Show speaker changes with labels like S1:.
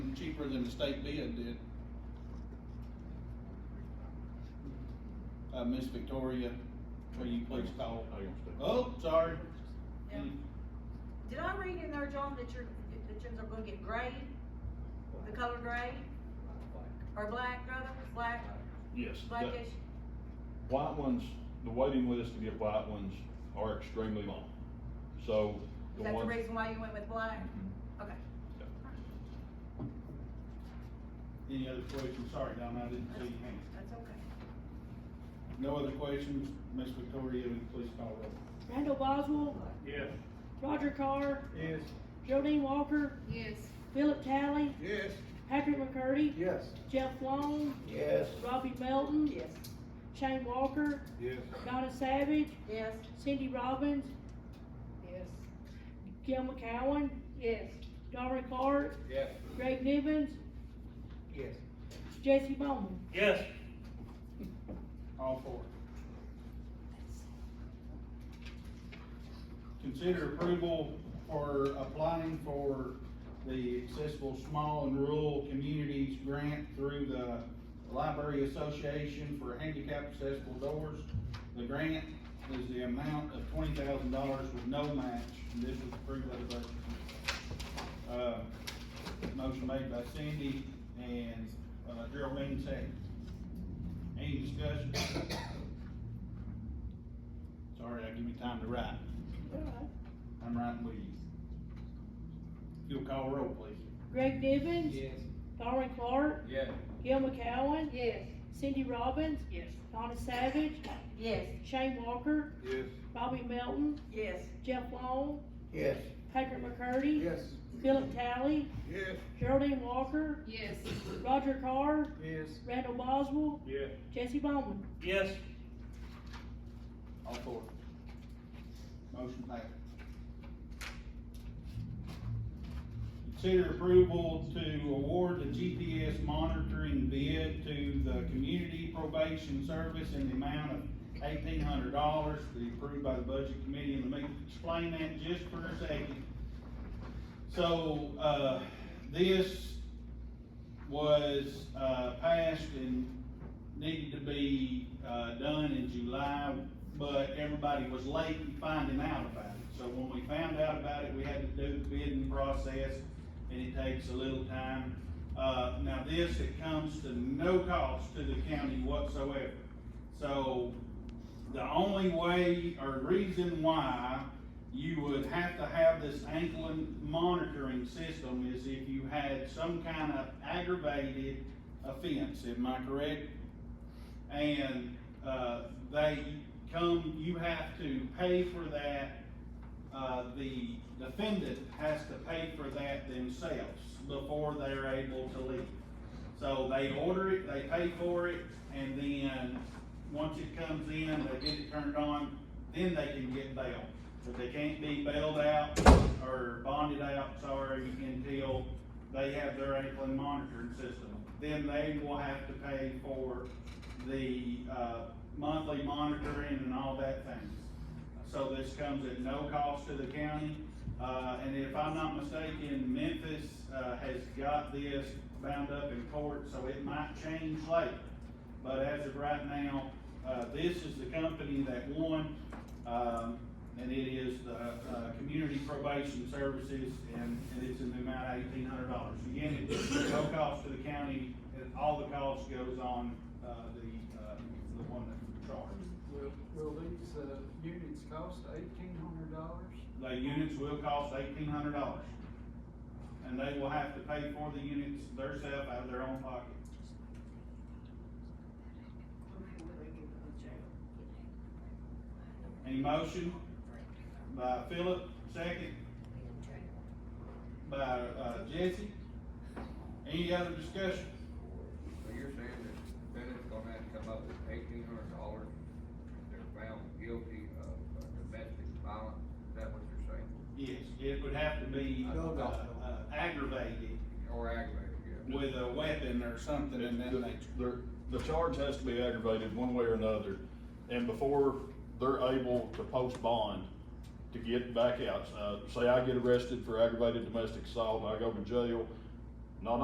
S1: cheaper than the state bid did. Uh, Miss Victoria, will you please call?
S2: I can stay.
S1: Oh, sorry.
S3: Now, Did I read in there, John, that your, that yours are gonna get gray, the color gray, or black, rather, black,
S2: Yes. that-
S3: blackish?
S2: White ones, the waiting list to get white ones are extremely long, so.
S3: Is that the
S2: ones-
S3: reason why you went with black? Okay.
S1: Any other questions? Sorry, Don, I didn't see
S3: That's
S1: you.
S3: that's okay.
S1: No other questions? Miss Victoria, will you please call roll?
S4: Randall Boswell,
S1: Yes.
S4: Roger Carr,
S1: Yes.
S4: Geraldine Walker,
S5: Yes.
S4: Philip Talley,
S1: Yes.
S4: Patrick McCurdy,
S1: Yes.
S4: Jeff Long,
S1: Yes.
S4: Robbie Melton,
S3: Yes.
S4: Shane Walker,
S1: Yes.
S4: Donna Savage,
S3: Yes,
S4: Cindy Robbins,
S5: Yes.
S4: Gil McCowen,
S5: Yes.
S4: Darwin Clark,
S1: Yes.
S4: Greg Nivens,
S1: Yes.
S4: Jesse Bowman.
S6: Yes,
S1: All four. Consider approval for applying for the accessible small and rural communities grant through the Library Association for handicap accessible doors. The grant is the amount of twenty thousand dollars with no match, and this was approved by the budget. committee. Uh, motion made by Cindy and uh, Geraldine second. Any discussion? Sorry, I give me time to write. I'm writing with you. You'll call roll, please.
S4: Greg Nivens, Darwin Clark,
S1: Yes.
S4: Gil McCowen,
S5: Yes.
S4: Cindy Robbins,
S5: Yes.
S4: Donna Savage,
S3: yes.
S4: Shane Walker,
S1: Yes.
S4: Robbie Melton,
S3: Yes.
S4: Jeff Long,
S1: Yes.
S4: Patrick McCurdy,
S1: Yes.
S4: Philip Talley,
S1: Yes.
S4: Geraldine Walker,
S5: Yes.
S4: Roger Carr,
S1: Yes.
S4: Randall Boswell,
S1: Yes.
S4: Jesse Bowman.
S6: yes,
S1: All four. Motion passed. Consider approval to award the GPS monitoring bid to the Community Probation Service in the amount of eighteen hundred dollars, be approved by the Budget Committee, and let me explain that just for a second. So, uh, this was, uh, passed and needed to be, uh, done in July, but everybody was late in finding out about it. So when we found out about it, we had to do the bidding process, and it takes a little time. Uh, now this, it comes to no cost to the county whatsoever. So the only way or reason why you would have to have this ankling monitoring system is if you had some kind of aggravated offense, am I correct? And, uh, they come, you have to pay for that, uh, the defendant has to pay for that themselves before they're able to leave. So they order it, they pay for it, and then, once it comes in, they get it turned on, then they can get bail. But they can't be bailed out or bonded out, sorry, until they have their ankling monitoring system. Then they will have to pay for the, uh, monthly monitoring and all that thing. So this comes at no cost to the county, uh, and if I'm not mistaken, Memphis, uh, has got this bound up in court, so it might change later. But as of right now, uh, this is the company that won, um, and it is the, uh, Community Probation Services, and, and it's in the amount of eighteen hundred dollars. Again, it's no cost to the county, and all the cost goes on, uh, the, uh, the one that's charged.
S7: Will, will these, uh, units cost eighteen hundred dollars?
S1: The units will cost eighteen hundred dollars. And they will have to pay for the units theirself out of their own pocket. Any motion by Philip, second by, uh, Jesse. Any other discussion?
S8: So you're saying that defendant's gonna have to come up with eighteen hundred dollars if they're found guilty of uh, domestic violence, is that what you're saying?
S1: Yes, it would have to be, uh,
S7: No, no, no.
S1: uh, aggravated
S8: Or aggravated, yeah?
S1: with a weapon or something and then they.
S2: The, the charge has to be aggravated one way or another, and before they're able to post bond to get back out, uh, say I get arrested for aggravated domestic assault, and I go to jail,